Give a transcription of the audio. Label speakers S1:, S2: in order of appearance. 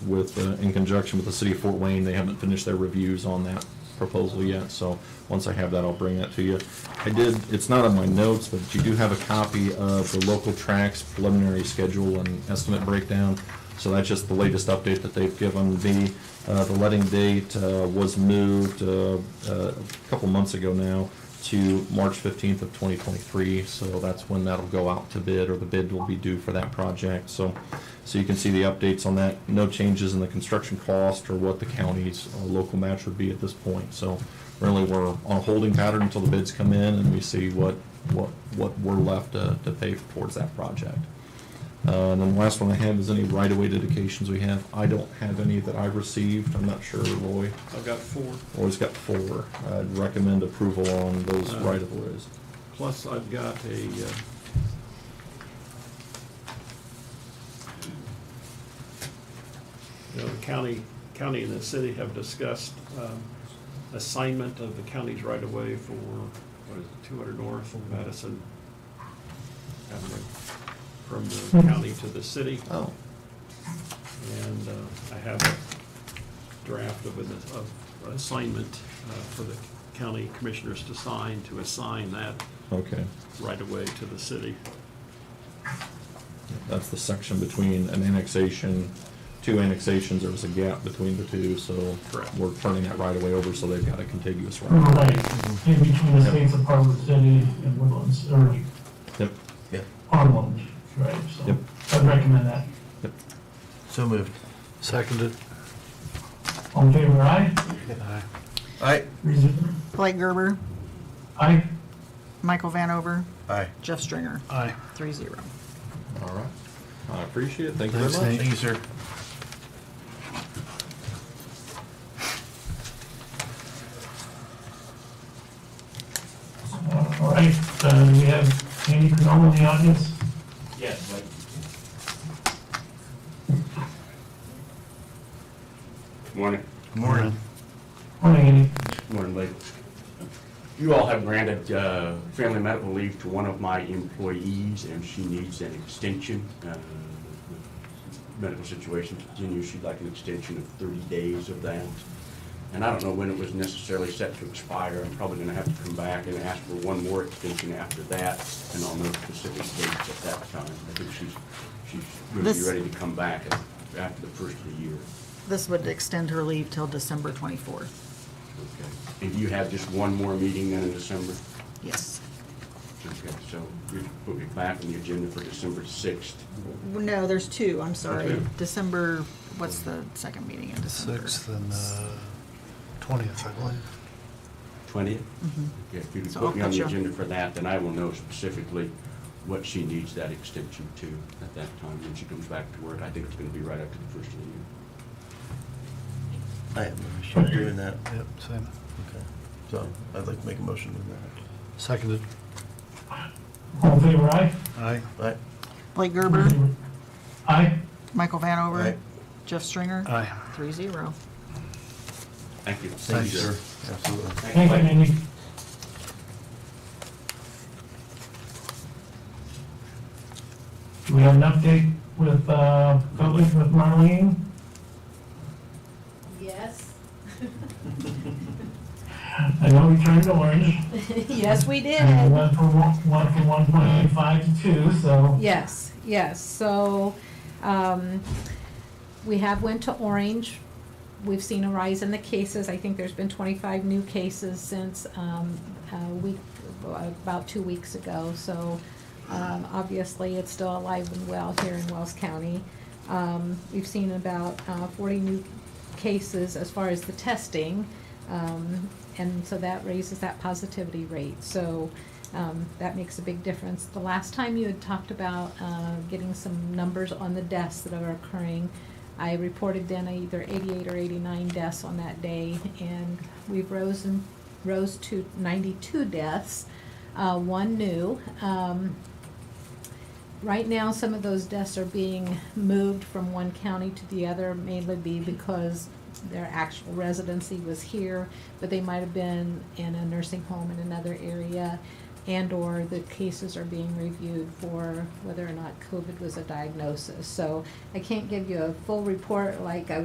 S1: with, uh, in conjunction with the city of Fort Wayne. They haven't finished their reviews on that proposal yet, so once I have that, I'll bring that to you. I did, it's not on my notes, but you do have a copy of the local tracks preliminary schedule and estimate breakdown. So that's just the latest update that they've given. The, uh, the letting date uh, was moved uh, uh, a couple months ago now to March 15th of 2023, so that's when that'll go out to bid, or the bid will be due for that project. So, so you can see the updates on that. No changes in the construction cost or what the county's uh, local match would be at this point. So really, we're on a holding pattern until the bids come in and we see what, what, what we're left to, to pay towards that project. Uh, And then the last one I have is any right-of-way dedications we have. I don't have any that I've received. I'm not sure, Roy.
S2: I've got four,
S1: Roy's got four. I'd recommend approval on those
S2: Uh,
S1: right-of-ways.
S2: plus I've got a, uh, you know, the county, county and the city have discussed um, assignment of the county's right-of-way for, what is it, 200 North and Madison Avenue, from the county to the city.
S1: Oh,
S2: And uh, I have a draft of an of an assignment uh, for the county commissioners to sign, to assign that
S1: okay.
S2: right-of-way to the city.
S1: That's the section between an annexation, two annexations, there was a gap between the two, so
S2: Correct.
S1: we're turning that right-of-way over, so they've got a contiguous
S3: Mm-hmm.
S1: right.
S4: Right, in between the states of Harwood City and Woodlands, or
S1: Yep,
S4: Harlem, right, so
S1: Yep.
S4: I'd recommend that.
S1: yep.
S3: So moved. Seconded.
S4: All in favor, aye?
S3: Aye. Aye.
S4: Reason-
S5: Blake Gerber,
S4: Aye,
S5: Michael Vanover,
S3: Aye.
S5: Jeff Stringer,
S3: Aye.
S5: three zero.
S1: All right. I appreciate it, thank you
S3: Thanks,
S1: very
S3: Nate.
S1: much.
S3: Thank you, sir.
S4: Uh, all right, uh, we have Andy Canola in the audience.
S6: Yes, like. Morning.
S3: Morning.
S4: Morning, Andy.
S6: Morning, Blake. You all have granted uh, family medical leave to one of my employees, and she needs an extension. Uh, the Medical situation continues, she'd like an extension of 30 days of that. And I don't know when it was necessarily set to expire. I'm probably going to have to come back and ask for one more extension after that, and I'll know specific dates at that time. I think she's, she's going to be
S5: This-
S6: ready to come back after the first of the year.
S5: This would extend her leave till December twenty-fourth.
S6: Okay. And you have just one more meeting then in December?
S5: Yes.
S6: Okay, so we put it back on the agenda for December 6th.
S5: No, there's two, I'm sorry.
S6: Okay.
S5: December, what's the second meeting in December?
S3: Sixth and uh, twentieth, I believe.
S6: 20th? Yeah, if you
S5: Mm-hmm.
S6: could
S5: So I'll
S6: put me on
S5: put
S6: the
S5: you-
S6: agenda for that, then I will know specifically what she needs that extension to at that time when she comes back to work. I think it's going to be right after the first of the year.
S7: I have no issue doing that.
S3: Yep, same.
S7: Okay. So I'd like to make a motion to that.
S3: Seconded.
S4: All in favor, aye?
S3: Aye.
S7: Right?
S5: Blake Gerber,
S4: Aye,
S5: Michael Vanover,
S7: Aye.
S5: Jeff Stringer,
S3: Aye.
S5: three zero.
S6: Thank you.
S3: Thank you, sir.
S7: Absolutely.
S4: thank you, Andy. Do we have an update with, uh, public, with Marlene?
S8: Yes.
S4: I know we turned orange.
S8: Yes, we
S4: And
S8: did.
S4: went from, one- went from one point eight five to two, so.
S8: Yes, yes. So um, we have went to Orange. We've seen a rise in the cases. I think there's been 25 new cases since um, a week, about two weeks ago. So um, obviously, it's still alive and well here in Wells County. Um, We've seen about uh, 40 new cases as far as the testing. Um, and so that raises that positivity rate. So um, that makes a big difference. The last time you had talked about uh, getting some numbers on the deaths that are occurring, I reported then either 88 or 89 deaths on that day, and we've rose and rose to 92 deaths, uh, one new. Um, right now, some of those deaths are being moved from one county to the other, mainly be because their actual residency was here, but they might have been in a nursing home in another area. and/or the cases are being reviewed for whether or not COVID was a diagnosis. So I can't give you a full report like I